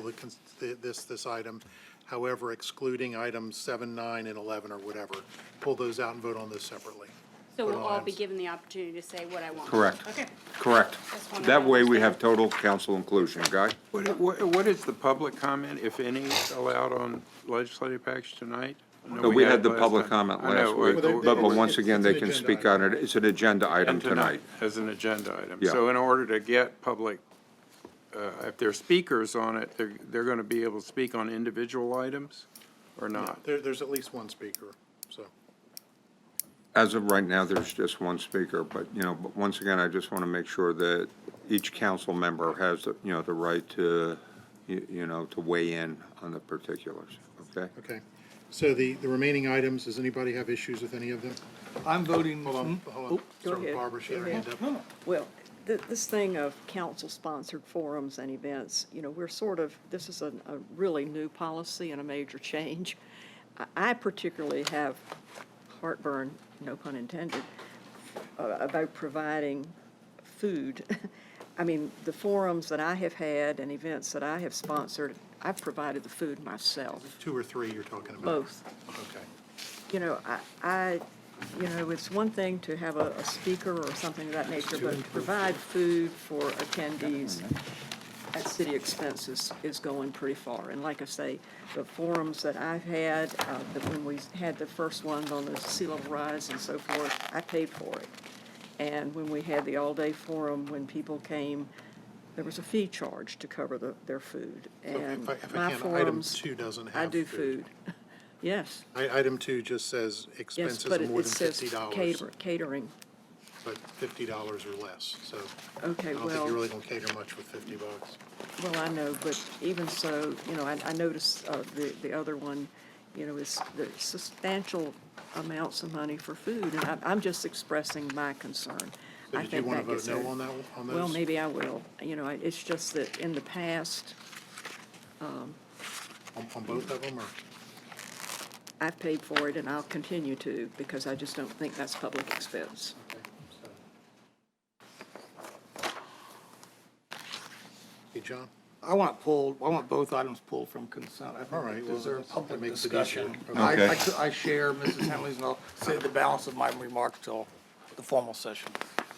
cons- th- this, this item. However, excluding items seven, nine, and 11 or whatever. Pull those out and vote on those separately. So we'll Vote on all be items. given the opportunity to say what I want. Correct. Okay. Correct. Just wanted That to way, we understand. have total council inclusion, Guy? What, what what is the public comment, if any, allowed on legislative package tonight? I know No, we had the last public time. comment I last know, week, Well, but, they- but they- once again, they it's an can agenda speak on it. It's an agenda item and tonight. As an agenda item. Yeah. So in order to get public, uh, if there are speakers on it, they're, they're going to be able to speak on individual items or not? There, there's at least one speaker, so. As of right now, there's just one speaker, but, you know, but once again, I just want to make sure that each council member has, you know, the right to, you you know, to weigh in on the particulars, okay? Okay, so the, the remaining items, does anybody have issues with any of them? I'm voting, Hold on, hold on. Mm-hmm. go Sorry, ahead. Barbara, she had her Go hand ahead. up. Well, th- this thing of council-sponsored forums and events, you know, we're sort of, this is a, a really new policy and a major change. I, I particularly have heartburn, no pun intended, uh, about providing food. I mean, the forums that I have had and events that I have sponsored, I've provided the food myself, Two or three you're talking about? both Okay. you know, I, I, you know, it's one thing to have a, a speaker or something of that nature, but to provide food for attendees at city expenses is going pretty far. And like I say, the forums that I've had, uh, that when we had the first one on the sea level rise and so forth, I paid for it. And when we had the all-day forum, when people came, there was a fee charge to cover the, their food. So And If I if I my can, item forums, two doesn't have. I do food. Yes. I- Item two just says Yes, expenses but it more it than says fifty dollars, cater- catering. but fifty dollars or less, so. I Okay, don't think well- you really gonna cater much with fifty bucks. Well, I know, but even so, you know, I, I noticed, uh, the, the other one, you know, is the substantial amounts of money for food, and I'm, I'm just expressing my concern. So I did you think wanna that vote gets no there. on that one- on Well, those? maybe I will. You know, I- it's just that in the past, On, on both of them, or? I've paid for it and I'll continue to, because I just don't think that's public expense. Hey, John? I want pulled, I want both items pulled from consent. I All think right, it well, deserves that public makes it discussion. easier. I, Okay. I c- I share Mrs. Henley's, and I'll save the balance of my remarks till the formal session.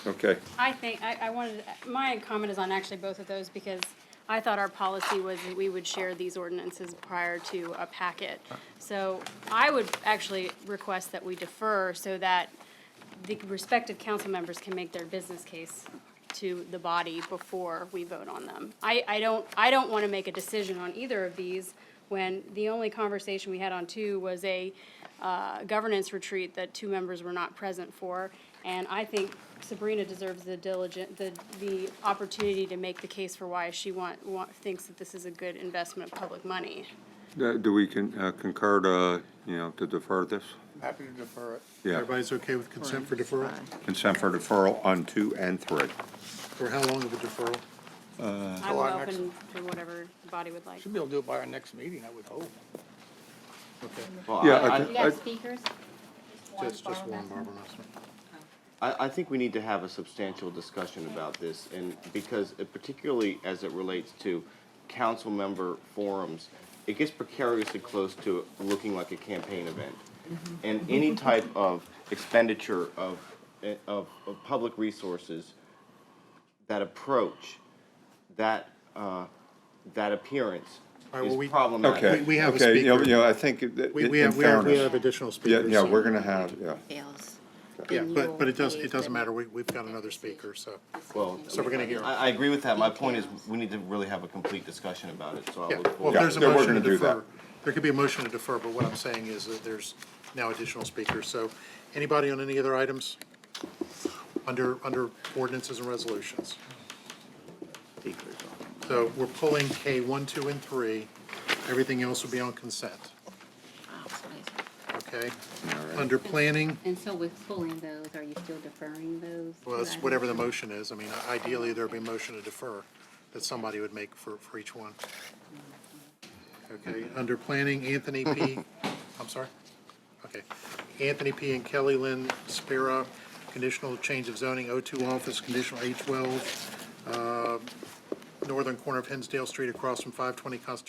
Okay. I think, I, I wanted, my comment is on actually both of those because I thought our policy was that we would share these ordinances prior to a packet. So I would actually request that we defer so that the respective council members can make their business case to the body before we vote on them. I, I don't, I don't want to make a decision on either of these when the only conversation we had on two was a uh, governance retreat that two members were not present for. And I think Sabrina deserves the diligent, the, the opportunity to make the case for why she want, want, thinks that this is a good investment of public money. Uh, Do we con- uh, concur to, you know, to defer this? Happy to defer it. Yeah. Everybody's okay with consent for deferral? Consent for deferral on two and three. For how long of a deferral? I'm our next- open to whatever the body would like. Should be able to do it by our next meeting, I would hope. Well, Yeah, I- I- You have speakers? one, Just, just Barbara one, Messer? Barbara Messer. I, I think we need to have a substantial discussion about this, and because, it- particularly as it relates to council member forums, it gets precariously close to looking like a campaign event. Mm-hmm. And any type of expenditure of, eh, of, of public resources, that approach, that, uh, that appearance right, well, we- is problematic. Okay. We- we have a Okay, you know- speaker. You know, I think that We, in we have, we have, we fairness- have additional Yeah, speakers. yeah, we're going to have, yeah. Fails. Yeah, Then but, you'll but it does, raise it doesn't the matter, we, we've got another speaker, so. Well, So we're gonna hear. I, I agree with that. My point is, we need to really have a complete discussion about it, so I Yeah, look well, forward. if there's a Yeah, we're motion to gonna do that. defer, there could be a motion to defer, but what I'm saying is that there's now additional speakers, so anybody on any other items? Under, under ordinances and resolutions. So we're pulling K one, two, and three, everything else will be on consent, okay? Under planning, And so with pulling those, are you still deferring those? well, it's whatever the motion is, I mean, ideally, there'd be a motion to defer that somebody would make for, for each one. Okay, under planning, Anthony P., I'm sorry? Okay. Anthony P. and Kelly Lynn Spira, conditional change of zoning, O2 office, conditional A12, uh, northern corner of Hinsdale Street across from 520 Constitution